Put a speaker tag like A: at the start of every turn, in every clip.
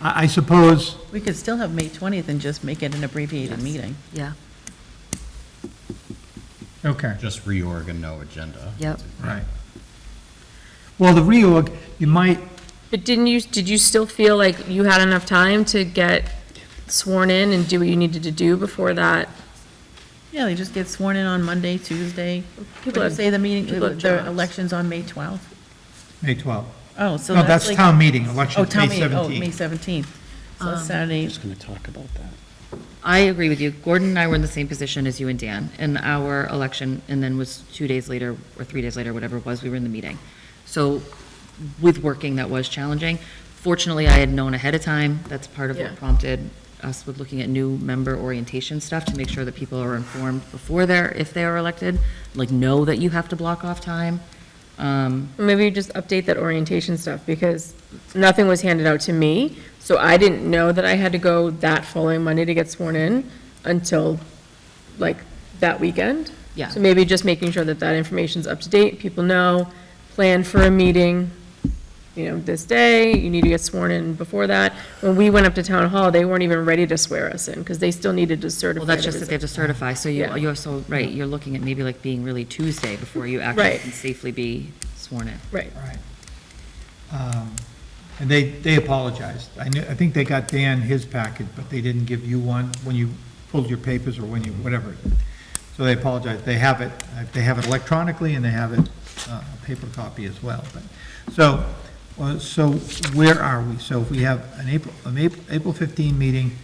A: I I suppose,
B: We could still have May 20th and just make it an abbreviated meeting.
C: Yeah,
A: okay,
D: Just reorg and no agenda.
C: Yep.
A: right. Well, the reorg, you might,
E: But didn't you, did you still feel like you had enough time to get sworn in and do what you needed to do before that?
B: Yeah, they just get sworn in on Monday, Tuesday.
E: People
B: Would you
E: have-
B: Say the meeting,
E: people have
B: the
E: jobs.
B: election's on May 12th.
A: May 12th.
B: Oh, so
A: No, that's
B: like-
A: town meeting,
B: Oh,
A: election, May
B: town meeting, oh, May
A: 17th.
B: 17th. So
E: Um,
B: that's Saturday,
F: Just going to talk about that.
C: I agree with you. Gordon and I were in the same position as you and Dan in our election, and then was two days later or three days later, whatever it was, we were in the meeting. So with working, that was challenging. Fortunately, I had known ahead of time. That's part of
E: Yeah.
C: what prompted us with looking at new member orientation stuff to make sure that people are informed before they're, if they are elected, like know that you have to block off time. Um,
E: Or Maybe you just update that orientation stuff, because nothing was handed out to me, so I didn't know that I had to go that following Monday to get sworn in until, like, that weekend.
C: Yeah.
E: So maybe just making sure that that information's up to date, people know, plan for a meeting, you know, this day, you need to get sworn in before that. When we went up to town hall, they weren't even ready to swear us in, because they still needed to certify.
C: Well, that's
E: there
C: just that
E: was
C: they have to certify, so you,
E: Yeah.
C: you're so, right, you're looking at maybe like being really Tuesday before you actually
E: Right.
C: can safely be sworn in.
E: a- Right,
A: Right. Um, And they, they apologized. I knew, I think they got Dan his packet, but they didn't give you one when you pulled your papers or when you, whatever. So they apologized. They have it, uh, they have it electronically and they have it, uh, a paper copy as well. But So, uh, so where are we? So if we have an April, an April- April 15 meeting,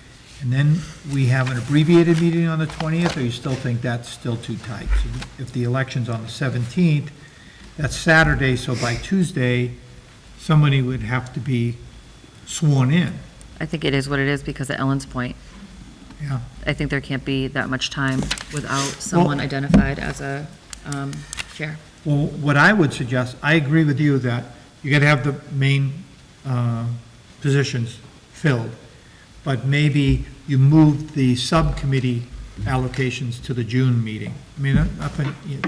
A: and then we have an abbreviated meeting on the 20th, or you still think that's still too tight? So If the election's on the 17th, that's Saturday, so by Tuesday, somebody would have to be sworn in,
C: I think it is what it is because of Ellen's point.
A: yeah.
C: I think there can't be that much time without someone identified as a um, chair.
A: Well, what I would suggest, I agree with you that you gotta have the main, um, positions filled, but maybe you move the subcommittee allocations to the June meeting. I mean, I I think, you-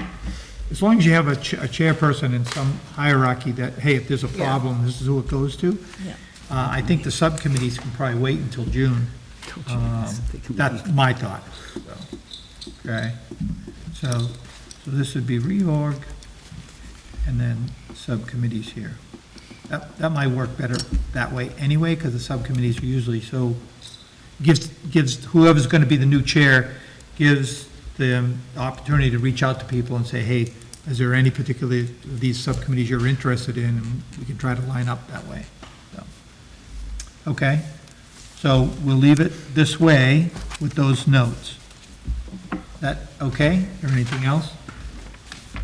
A: as long as you have a cha- a chairperson in some hierarchy that, hey, if there's a problem, this is who it goes to.
B: Yeah.
A: Uh, I think the subcommittees can probably wait until June. Um, That's my thought, so, okay? So, so this would be reorg, and then subcommittees here. That, that might work better that way anyway, because the subcommittees are usually so, gives, gives whoever's going to be the new chair, gives them the opportunity to reach out to people and say, hey, is there any particular, of these subcommittees you're interested in, and we can try to line up that way. So, Okay, so we'll leave it this way with those notes. That, okay, or anything else?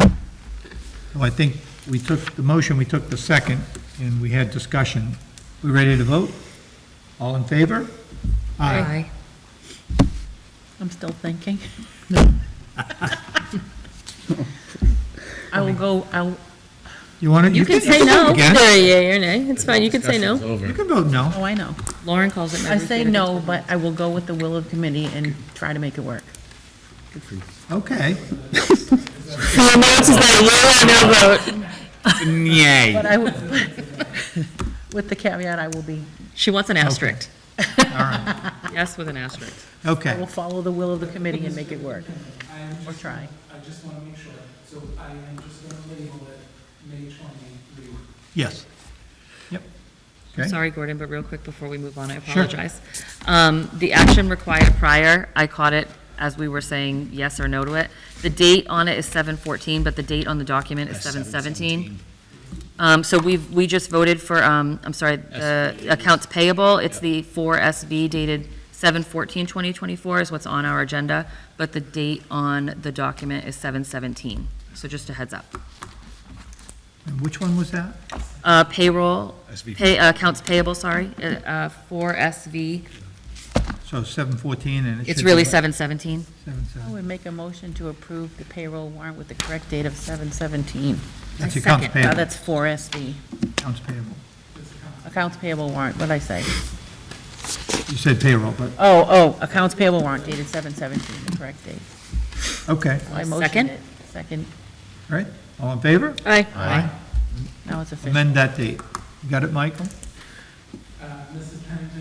A: So I think we took the motion, we took the second, and we had discussion. We ready to vote? All in favor?
B: I'm still thinking. I will go, I'll,
A: You want to?
C: You can say
A: vote
C: no.
A: again.
E: Yeah, yeah, you're nay, it's fine, you can say no.
A: You can vote no.
B: oh, I know.
C: Lauren calls it.
B: I say no, but I will go with the will of committee and try to make it work.
A: Okay.
B: But I, would- with the caveat, I will be,
C: She wants an asterisk.
A: All right.
C: Yes with an asterisk.
B: I will
A: Okay.
B: follow the will of the committee and make it work, or try.
G: I just want to make sure, so I am just going to label it May 23.
A: Yes. Yep.
C: I'm
A: Okay.
C: sorry, Gordon, but real quick before we move on, I apologize. Um, The action required prior, I caught it as we were saying yes or no to it. The date on it is 7/14, but the date on the document is 7/17. Um, So we've, we just voted for, um, I'm sorry, the accounts payable. It's the 4SV dated 7/14/2024 is what's on our agenda, but the date on the document is 7/17. So just a heads up.
A: And which one was that?
C: Uh, Payroll, pay- uh, accounts payable, sorry, uh, uh, 4SV
A: So 714 and it should
C: It's
A: be
C: really Oh,
A: what?
C: seven seventeen.
A: Seven,
B: I
A: seven.
B: would make a motion to approve the payroll warrant with the correct date of 7/17.
A: That's
C: I
A: accounts
C: second.
B: Now,
A: payable.
B: that's 4SB,
A: Accounts payable.
B: accounts payable warrant, what'd I say?
A: You said payroll, but,
B: Oh, oh, accounts payable warrant dated 7/17, the correct date.
A: okay,
B: I
C: Second?
B: motioned it. Second,
A: all right. All in favor?
E: Aye.
B: now it's official.
A: Amend that date. You got it, Michael?
G: Uh, Mrs. Pennington